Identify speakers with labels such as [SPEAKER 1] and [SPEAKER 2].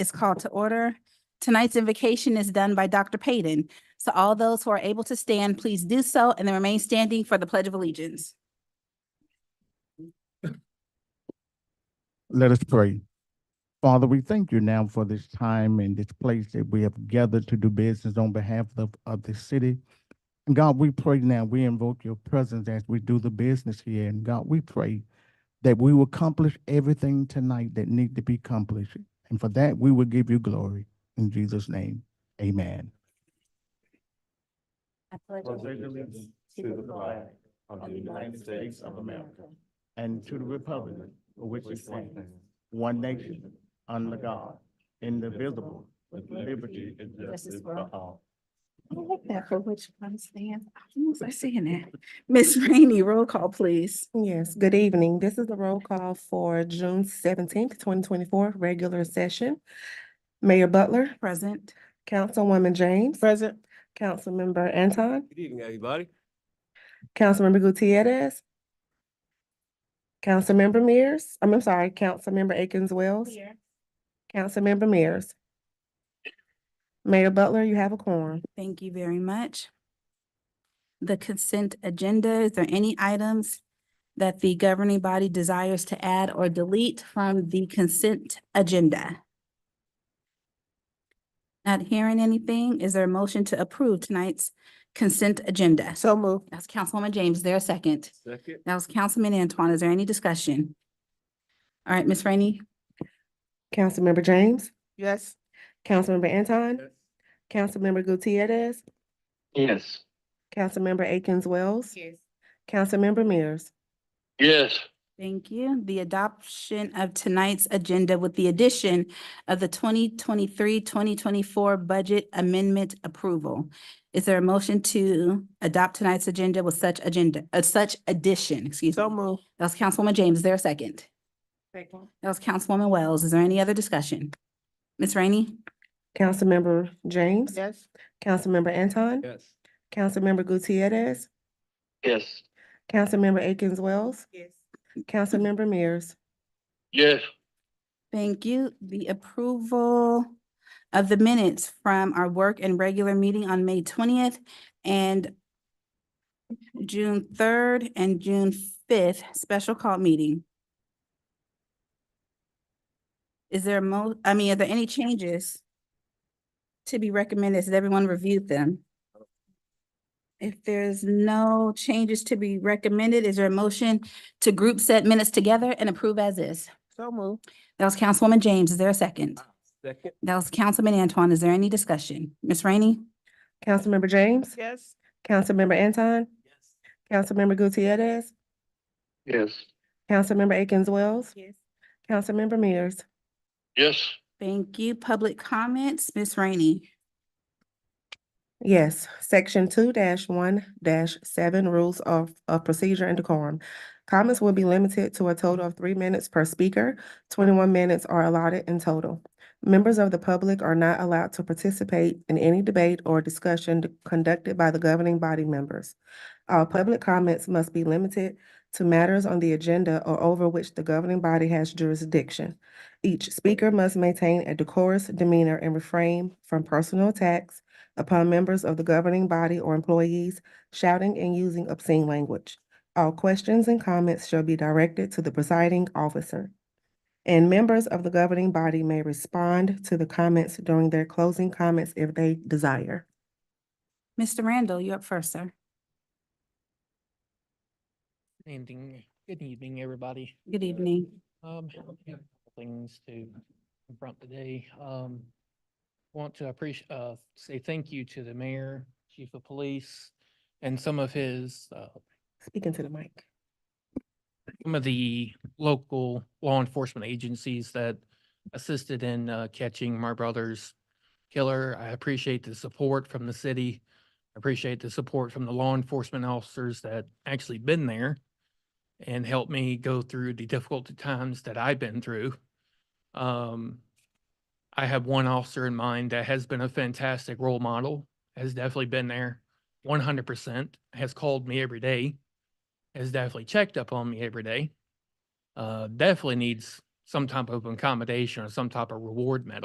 [SPEAKER 1] is called to order. Tonight's invocation is done by Dr. Payton. So all those who are able to stand, please do so and then remain standing for the Pledge of Allegiance.
[SPEAKER 2] Let us pray. Father, we thank you now for this time and this place that we have gathered to do business on behalf of, of the city. And God, we pray now, we invoke your presence as we do the business here. And God, we pray that we will accomplish everything tonight that need to be accomplished. And for that, we will give you glory. In Jesus' name, amen.
[SPEAKER 1] I pledge
[SPEAKER 2] to the flag of the United States of America and to the republic for which it stands, one nation, under God, indivisible, with liberty and
[SPEAKER 1] justice
[SPEAKER 2] justice
[SPEAKER 1] for
[SPEAKER 2] for all.
[SPEAKER 1] I like that for which one stands. I was I saying that? Miss Rainey, roll call, please.
[SPEAKER 3] Yes, good evening. This is the roll call for June seventeenth, twenty twenty-four, regular session. Mayor Butler,
[SPEAKER 1] Present.
[SPEAKER 3] Councilwoman James. Present. Councilmember Anton,
[SPEAKER 4] Good evening, everybody.
[SPEAKER 3] Councilmember Gutierrez. Councilmember Mears, I'm, I'm sorry, Councilmember Akins Wells. Councilmember Mears. Mayor Butler, you have a quorum.
[SPEAKER 1] Thank you very much. The consent agenda, is there any items that the governing body desires to add or delete from the consent agenda? Not hearing anything, is there a motion to approve tonight's consent agenda? So moved. That's Councilwoman James, is there a second?
[SPEAKER 4] Second.
[SPEAKER 1] That was Councilman Antoine, is there any discussion? All right, Ms. Rainey?
[SPEAKER 3] Councilmember James,
[SPEAKER 5] Yes.
[SPEAKER 3] Councilmember Anton, Councilmember Gutierrez,
[SPEAKER 6] Yes.
[SPEAKER 3] Councilmember Akins Wells,
[SPEAKER 5] Yes.
[SPEAKER 3] Councilmember Mears.
[SPEAKER 6] Yes.
[SPEAKER 1] Thank you. The adoption of tonight's agenda with the addition of the 2023-2024 budget amendment approval. Is there a motion to adopt tonight's agenda with such agenda, uh, such addition, excuse me?
[SPEAKER 5] So move.
[SPEAKER 1] That was Councilwoman James. Is there a second?
[SPEAKER 5] Second.
[SPEAKER 1] That was Councilwoman Wells. Is there any other discussion? Ms. Rainey?
[SPEAKER 3] Councilmember James.
[SPEAKER 5] Yes.
[SPEAKER 3] Councilmember Anton.
[SPEAKER 4] Yes.
[SPEAKER 3] Councilmember Gutierrez.
[SPEAKER 6] Yes.
[SPEAKER 3] Councilmember Akins Wells.
[SPEAKER 5] Yes.
[SPEAKER 3] Councilmember Mears.
[SPEAKER 6] Yes.
[SPEAKER 1] Thank you. The approval of the minutes from our work and regular meeting on May twentieth and June third and June fifth, special call meeting. Is there a mo, I mean, are there any changes to be recommended? Has everyone reviewed them? If there's no changes to be recommended, is there a motion to group set minutes together and approve as is?
[SPEAKER 5] So move.
[SPEAKER 1] That was Councilwoman James. Is there a second?
[SPEAKER 4] Ah, Second.
[SPEAKER 1] That was Councilman Antoine. Is there any discussion? Ms. Rainey?
[SPEAKER 3] Councilmember James.
[SPEAKER 5] Yes.
[SPEAKER 3] Councilmember Anton.
[SPEAKER 4] Yes.
[SPEAKER 3] Councilmember Gutierrez.
[SPEAKER 6] Yes.
[SPEAKER 3] Councilmember Akins Wells.
[SPEAKER 5] Yes.
[SPEAKER 3] Councilmember Mears.
[SPEAKER 6] Yes.
[SPEAKER 1] Thank you. Public comments, Ms. Rainey.
[SPEAKER 3] Yes, section two one seven rules of, of procedure and decorum. Comments will be limited to a total of three minutes per speaker. Twenty-one minutes are allotted in total. Members of the public are not allowed to participate in any debate or discussion d- conducted by the governing body members. All public comments must be limited to matters on the agenda or over which the governing body has jurisdiction. Each speaker must maintain a decorous demeanor and refrain from personal attacks, upon members of the governing body or employees shouting and using obscene language. All questions and comments shall be directed to the presiding officer. And members of the governing body may respond to the comments during their closing comments if they desire.
[SPEAKER 1] Mr. Randall, you up first, sir.
[SPEAKER 7] Evening, good evening, everybody. Uh,
[SPEAKER 1] Good evening.
[SPEAKER 7] Um, we have a couple things to confront today. Um, want to appreciate, uh, say thank you to the mayor, chief of police, and some of his, uh,
[SPEAKER 3] Speaking to the mic.
[SPEAKER 7] some of the local law enforcement agencies that assisted in uh, catching my brother's killer. I appreciate the support from the city. I appreciate the support from the law enforcement officers that actually been there and helped me go through the difficult times that I've been through. Um, I have one officer in mind that has been a fantastic role model, has definitely been there one hundred percent, has called me every day has definitely checked up on me every day. Uh, definitely needs some type of accommodation or some type of reward medal.